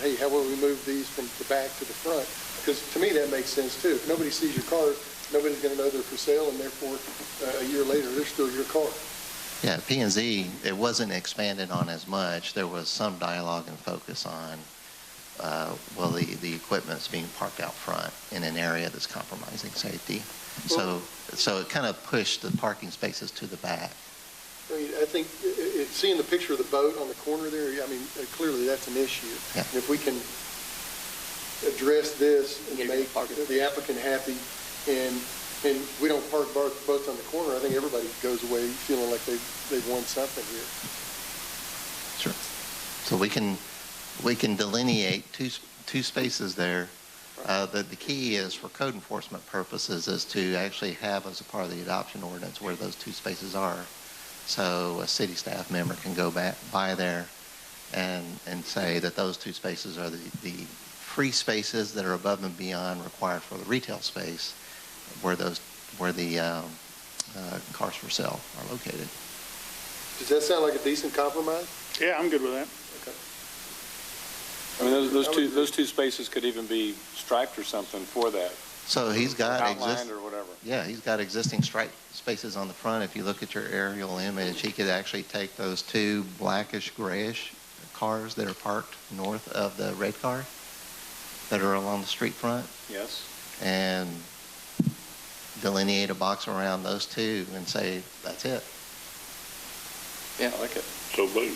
hey, how will we move these from the back to the front? Because to me, that makes sense too. If nobody sees your car, nobody's going to know they're for sale, and therefore, uh, a year later, they're still your car. Yeah, P and Z, it wasn't expanded on as much. There was some dialogue and focus on, uh, well, the, the equipment's being parked out front in an area that's compromising safety. So, so it kind of pushed the parking spaces to the back. I mean, I think, i- i- it- seeing the picture of the boat on the corner there, I mean, uh, clearly that's an issue. Yeah. And If we can address this Get and it make parked. the applicant happy, and, and we don't park bar- boats on the corner, I think everybody goes away feeling like they've, they've won something here. Sure. So we can, we can delineate two, s- two spaces there. Uh, The, the key is for code enforcement purposes is to actually have as a part of the adoption ordinance where those two spaces are. So a city staff member can go back, by there and, and say that those two spaces are the, the free spaces that are above and beyond required for the retail space where those, where the um, uh, cars for sale are located. Does that sound like a decent compromise? Yeah, I'm good with that. I mean, those, those two, those two spaces could even be striped or something for that. So he's got Outlined exist- or whatever. Yeah, he's got existing stripe spaces on the front. If you look at your aerial image, he could actually take those two blackish grayish cars that are parked north of the red car that are along the street front Yes. and delineate a box around those two and say, that's it. Yeah. I like it. So boom.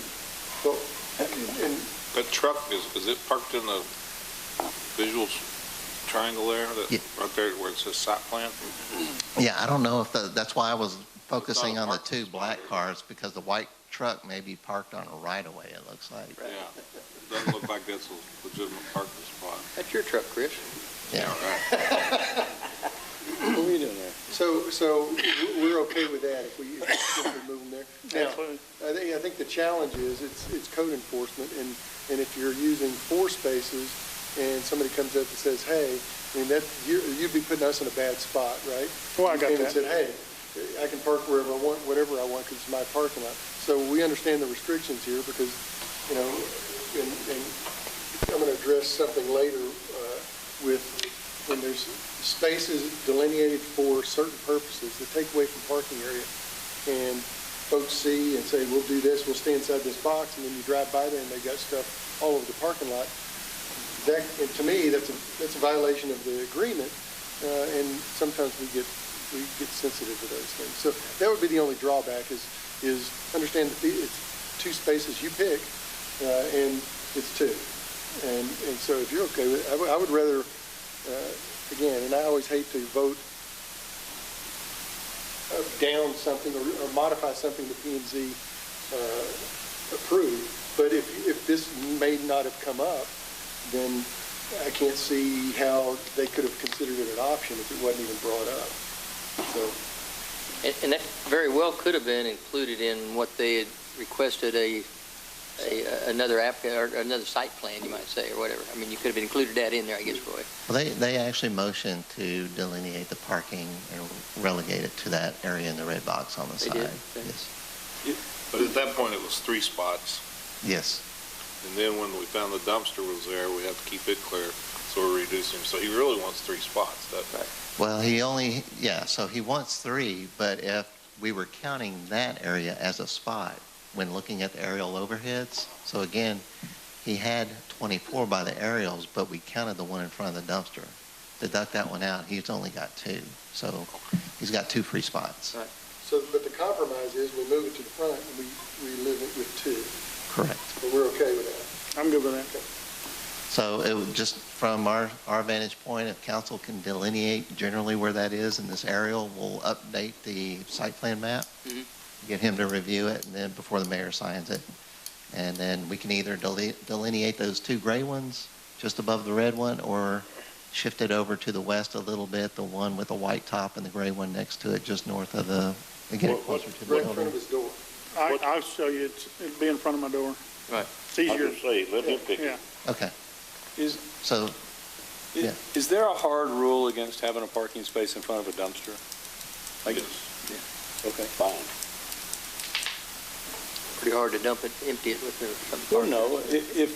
Well, and That truck is, is it parked in the visual s- triangle there, Yeah. that, right there where it says site plan? Yeah, I don't know if the, that's why I was focusing on the parking two spot. black cars because the white truck may be parked on a right of way, it looks like. Yeah. Doesn't look like that's a legitimate parking spot. That's your truck, Chris. Yeah. Right. What are you doing there? So, so we're okay with that if we, if we move them there? Now, Absolutely. I think, I think the challenge is, it's, it's code enforcement, and, and if you're using four spaces, and somebody comes up and says, hey, I mean, that, you, you'd be putting us in a bad spot, right? Well, I got You came that. and said, hey, I can park wherever I want, whatever I want, because it's my parking lot. So we understand the restrictions here, because, you know, and, and I'm gonna address something later, uh, with, when there's spaces delineated for certain purposes, the takeaway from parking area, and folks see and say, we'll do this, we'll stay inside this box, and then you drive by there and they've got stuff all over the parking lot, that, and to me, that's a, that's a violation of the agreement, uh, and sometimes we get, we get sensitive to those things. So that would be the only drawback is, is understand that the- it's two spaces you pick, uh, and it's two. And, and so if you're okay with, I would, I would rather, uh, again, and I always hate to vote uh, down something or or modify something that P and Z uh, approved, but if, if this may not have come up, then I can't see how they could have considered it an option if it wasn't even brought up. So, And, and that very well could have been included in what they had requested a, a, another applicant, or another site plan, you might say, or whatever. I mean, you could have included that in there, I guess, Roy. Well, they, they actually motioned to delineate the parking and relegate it to that area in the red box on the They side. did? Okay. Yes. But at that point, it was three spots, Yes. and then when we found the dumpster was there, we had to keep it clear, so we're reducing, so he really wants three spots, that, Well, he only, yeah, so he wants three, but if we were counting that area as a spot when looking at the aerial overheads, so again, he had 24 by the aerials, but we counted the one in front of the dumpster. Deduct that one out, he's only got two. So he's got two free spots. so, but the compromise is we move it to the front and we, we live it with two, Correct. but we're okay with that. I'm good with that. So it would just, from our, our vantage point, if council can delineate generally where that is in this aerial, we'll update the site plan map, Mhm. get him to review it, and then before the mayor signs it. And then we can either deli- delineate those two gray ones just above the red one, or shift it over to the west a little bit, the one with the white top and the gray one next to it, just north of the, again, What- what- closer to the Right in front building. of his door. I, I'll show you, it's, it'd be in front of my door. Right. It's easier, say, let him pick yeah. Okay, Is, so is- Yeah. is there a hard rule against having a parking space in front of a dumpster? Like, okay. Fine. Pretty hard to dump it, empty it with the. Or no, i- if,